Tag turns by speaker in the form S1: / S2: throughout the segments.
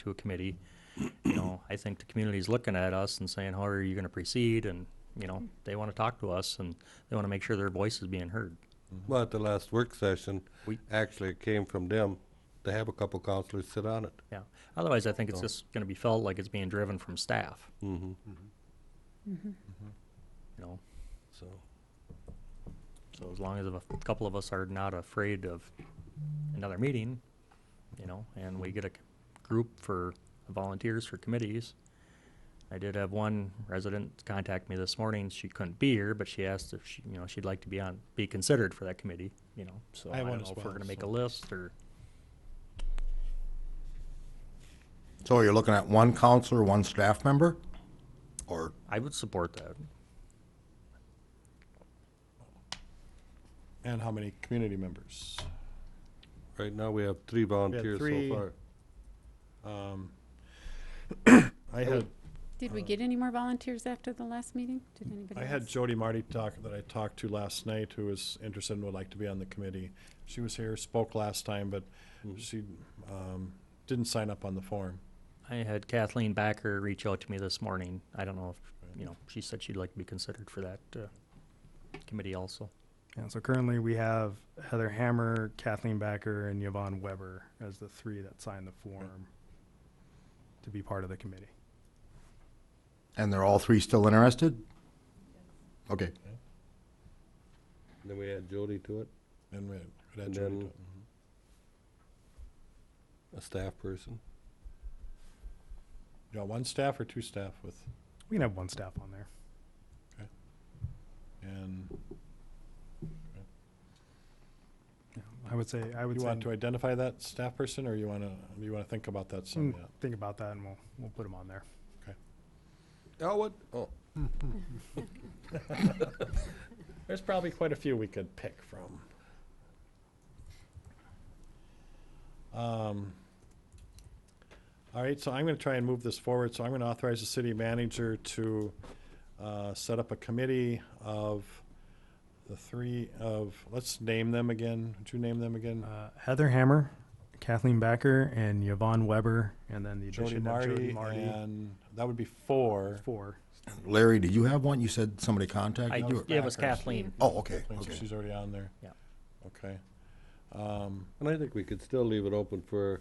S1: to a committee, you know, I think the community's looking at us and saying, how are you gonna proceed? And, you know, they wanna talk to us and they wanna make sure their voice is being heard.
S2: Well, at the last work session,
S1: We-
S2: actually, it came from them to have a couple counselors sit on it.
S1: Yeah. Otherwise, I think it's just gonna be felt like it's being driven from staff,
S2: Mm-hmm,
S1: you know?
S2: so.
S1: So as long as a couple of us are not afraid of another meeting, you know, and we get a c- group for volunteers for committees. I did have one resident contact me this morning. She couldn't be here, but she asked if she, you know, she'd like to be on, be considered for that committee, you know, so
S3: I
S1: I
S3: have
S1: don't
S3: one
S1: know
S3: as
S1: if we're
S3: well,
S1: gonna make a
S3: so-
S1: list or,
S4: So you're looking at one counselor, one staff member? Or,
S1: I would support that.
S3: And how many community members?
S2: Right now, we have three volunteers
S3: three.
S2: so far.
S3: Um, I had,
S5: Did
S1: Uh,
S5: we get any more volunteers after the last meeting? Did anybody
S3: I had
S5: else?
S3: Jody Marty talk, that I talked to last night, who is interested and would like to be on the committee. She was here, spoke last time, but she, um, didn't sign up on the form.
S1: I had Kathleen Backer reach out to me this morning. I don't know if, you know, she said she'd like to be considered for that, uh, committee also.
S6: And so currently we have Heather Hammer, Kathleen Backer, and Yvonne Weber as the three that signed the form to be part of the committee.
S4: and they're all three still interested? Okay,
S2: Then we add Jody to it,
S3: And we we had
S2: And
S3: Jody
S2: then-
S3: do it. Mhm.
S2: a staff person.
S3: You got one staff or two staff with,
S6: We can have one staff on there.
S3: and
S6: Yeah, I would say, I would
S3: you
S6: say,
S3: want to identify that staff person, or you wanna, you wanna think about that some
S6: mm,
S3: yet?
S6: think about that and we'll, we'll put them on there.
S2: Oh, what? Oh,
S3: There's probably quite a few we could pick from. Um, All right, so I'm going to try and move this forward. So I'm going to authorize the city manager to uh, set up a committee of the three of, let's name them again. Would you name them again?
S6: Uh, Heather Hammer, Kathleen Backer, and Yvonne Weber, and then the
S3: Jody
S6: addition of Jody
S3: Marty,
S6: Marty.
S3: and that would be four.
S6: Four.
S4: Larry, did you have one? You said somebody contacted you?
S1: I,
S4: or-
S1: yeah, it was
S3: Backers.
S1: Kathleen.
S4: Oh, okay,
S3: So
S4: okay.
S3: She's already on there?
S1: Yeah.
S3: Okay. Um,
S2: and I think we could still leave it open for,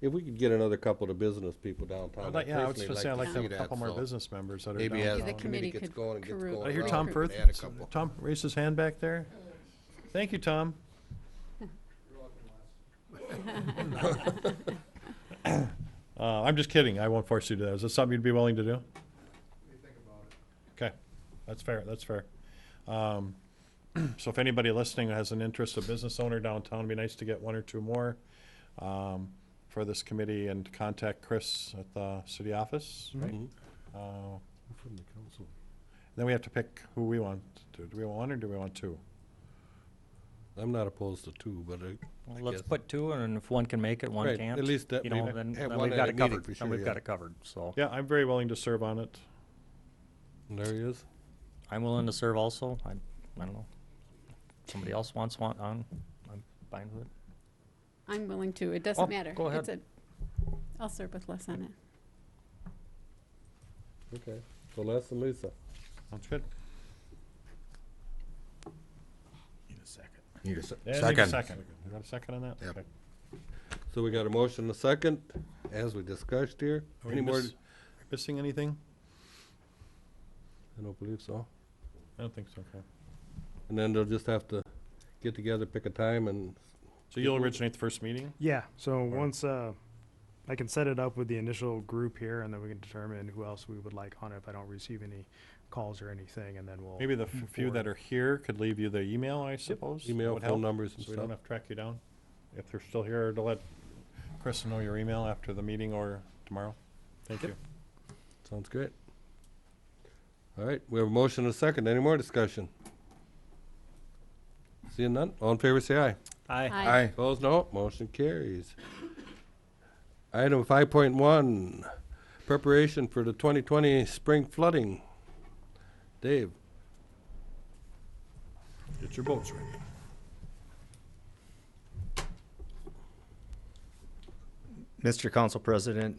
S2: if we could get another couple of business people
S3: I'd
S2: downtown.
S3: like- Yeah, I was
S2: personally
S3: just saying, I'd like to
S2: see
S3: have a
S2: that,
S3: couple more
S2: so
S3: business members that are
S2: Maybe as
S5: Yeah,
S2: the
S5: the
S3: downtown.
S2: committee
S5: committee
S2: gets
S5: could
S2: going and gets
S5: corru-
S2: going.
S3: I hear
S2: around,
S3: Tom
S2: we
S3: Firth,
S2: can add a couple.
S3: Tom raised his hand back there. Thank you, Tom. Uh, I'm just kidding, I won't force you to do that. Is this something you'd be willing to do? Okay, that's fair, that's fair. Um, so if anybody listening has an interest, a business owner downtown, it'd be nice to get one or two more, um, for this committee and to contact Chris at the city office, right? Uh,
S7: From the council.
S3: Then we have to pick who we want to. Do we want one or do we want two?
S2: I'm not opposed to two, but I-
S1: Well,
S2: I
S1: Let's
S2: guess.
S1: put two, and if one can make it, one
S2: Right, at
S1: can't.
S2: least that
S1: You
S2: we
S1: know,
S2: have
S1: then, then
S2: one
S1: we've
S2: at
S1: got
S2: a
S1: it
S2: meeting
S1: covered,
S2: for
S1: then
S2: sure,
S1: we've got
S2: yeah.
S1: it covered, so.
S3: Yeah, I'm very willing to serve on it.
S2: there he is.
S1: I'm willing to serve also, I, I don't know. Somebody else wants one on, I'm fine with it.
S5: I'm willing to.
S1: Oh,
S5: It doesn't matter.
S1: go
S5: It's
S1: ahead.
S5: a- I'll serve with Les on it.
S2: Okay, so Les and Lisa.
S3: Sounds good.
S4: Need a se-
S3: Yeah, I need a
S4: second.
S3: second. You got a second on that?
S4: Yep.
S3: Okay.
S2: So we got a motion and a second, as we discussed here.
S3: Are we
S2: Any more?
S3: miss- Missing anything?
S2: I don't believe so.
S3: I don't think so, okay.
S2: And then they'll just have to get together, pick a time and,
S3: So you'll originate the first meeting?
S6: Yeah, so once, uh, I can set it up with the initial group here and then we can determine who else we would like on it if I don't receive any calls or anything and then we'll.
S3: Maybe the f- few that are here could leave you their email, I suppose? That
S2: Mm, Email,
S3: would
S2: phone
S3: help,
S2: numbers and
S3: So we don't
S2: stuff.
S3: have to track you down. If they're still here, to let Chris know your email after the meeting or tomorrow. Thank you.
S2: sounds great. All right, we have a motion and a second. Any more discussion? Seeing none? All in favor, say aye.
S1: Aye.
S5: Aye.
S2: Opposed, no. Motion carries. Item five point one, preparation for the twenty twenty spring flooding. Dave?
S3: Get your boats ready.
S8: Mr. Council President,